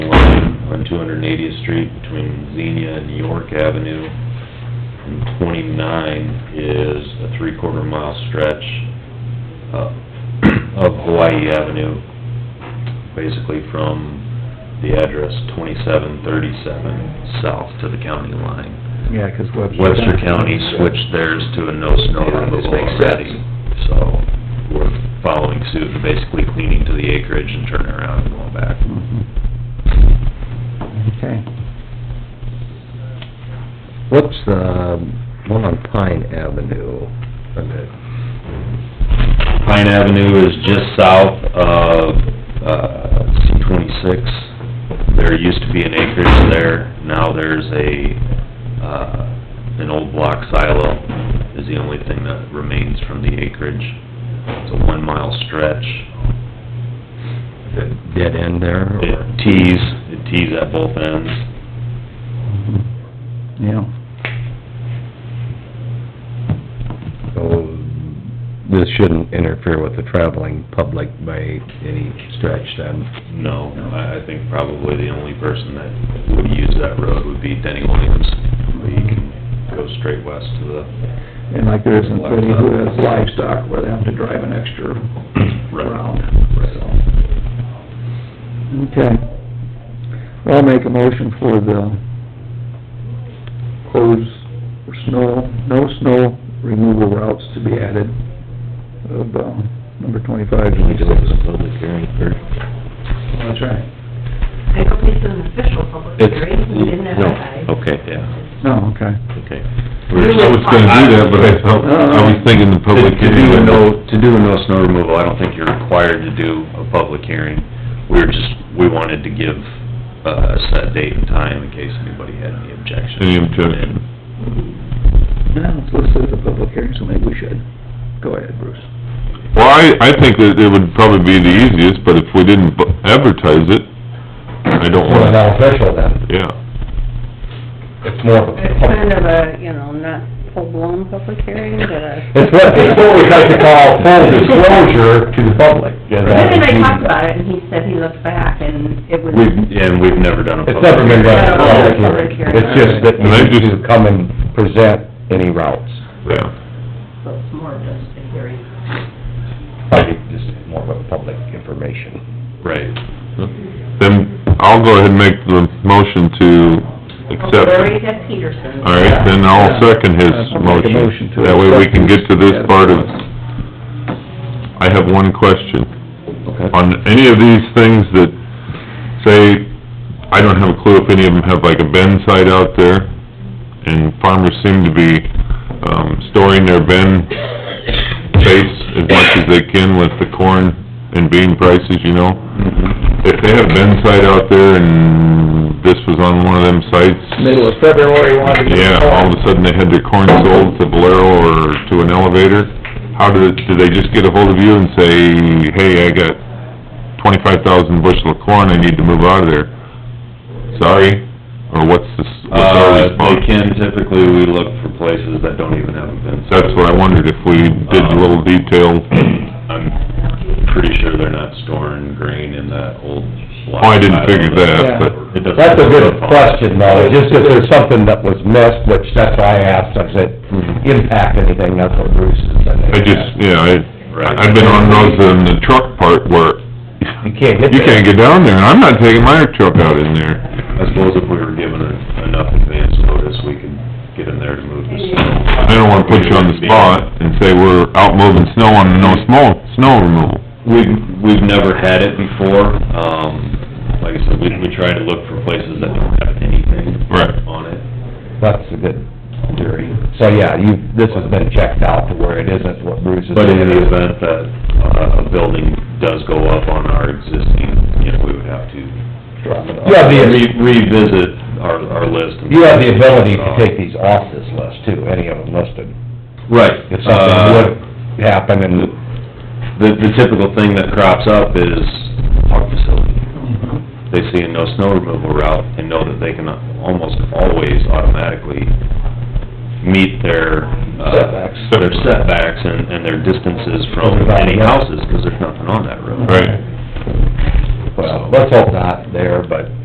two hundred and eightieth street between Xenia and York Avenue. And twenty-nine is a three-quarter mile stretch uh, of Hawaii Avenue, basically from the address twenty-seven thirty-seven south to the county line. Yeah, 'cause Webster. Webster County switched theirs to a no snow Yeah, this removal makes already, so we're following suit and basically cleaning to the acreage and turning around and going back. Mhm. Okay. What's the um, one on Pine Avenue? Pine Avenue is just south of, uh, C twenty-six. There used to be an acreage there, now there's a, uh, an old block silo is the only thing that remains from the acreage. It's a one-mile stretch. The dead end there? or- It tees, it tees at both ends. Mm-hmm. Yeah. So, this shouldn't interfere with the traveling public by any stretch then? No, I, I think probably the only person that would use that road would be Denny Williams. He can go straight west to the, And like there isn't any who has livestock where they have to drive an extra Right. round, so. Okay. Well, I'll make a motion for the close for snow, no snow removal routes to be added of, uh, number twenty-five. public hearing first? That's right. I don't think it's an official public hearing, we didn't advertise. okay. yeah, No, Oh, okay. okay. I was gonna do that, but I thought, I was thinking the To public to hearing. do a no, to do a no snow removal, I don't think you're required to do a public hearing. We were just, we wanted to give uh, a set date and time in case anybody had any objections. Any objection? Now, it's listed as a public hearing, so maybe we should. Go ahead, Bruce. Well, I, I think that it would probably be the easiest, but if we didn't bu- advertise it, I don't Well, want, not official then, yeah. it's more of a It's public... kind of a, Uh, you know, not full-blown public hearing, but uh, a... It's what, it's what we like to call full disclosure to the public. Then I talked about it, and he said he looked back, and it was, We've, and we've never done a It's public. never been done as a public Public hearing, hearing. it's just that And I you need just- to come and present any routes. Yeah. so it's more just a hearing. Probably just more of a public information. Right. Then I'll go ahead and make the motion to accept Well, it. Larry had Peterson. All right, then I'll second his I'll make a motion to motion. That way we can get accept to this this. part of, I have one question. Okay. On any of these things that say, I don't have a clue if any of them have like a bend site out there, and farmers seem to be, um, storing their bend base as much as they can with the corn and bean prices, you know? If they have a bend site out there and this was on one of them sites, Middle of February, wanted to yeah, get all of a sudden they had their corn sold to Valero or to an elevator. How do, do they just get a hold of you and say, hey, I got twenty-five thousand bushel of corn, I need to move out of there? Sorry? Or what's the, s- what's our Uh, they response? can, typically, we look for places that don't even have a fence. That's what I wondered, if we did a little detail. I'm pretty sure they're not storing grain in that old block. Oh, I didn't figure that, but, It doesn't- That's a good question though, just if there's something that was missed, which that's why I asked, does it impact anything, that's what Bruce is saying. I just, yeah, I, Right. I've been on those in the truck part where You can't get you can't there. get down there, and I'm not taking my truck out in there. I suppose if we were given en- enough advance notice, we could get in there to move this. I don't wanna put you on the spot and say we're out moving snow on the no snow, snow removal. We've, we've never had it before, um, like I said, we, we try to look for places that don't have anything Right. on it. That's a good theory. So, yeah, you, this has been checked out to where it isn't what Bruce is... But in the event that uh, a building does go up on our existing, you know, we would have to You have the, re- revisit our, our list. and- you have the ability to take these off this list too, any of them listed. Right. If Uh, something would happen and, The, the typical thing that crops up is park facility. They see a no snow removal route and know that they can almost always automatically meet their, uh, Setbacks. their setbacks and, and their distances from any houses, 'cause there's nothing on that road. Right. well, let's hope not there, but...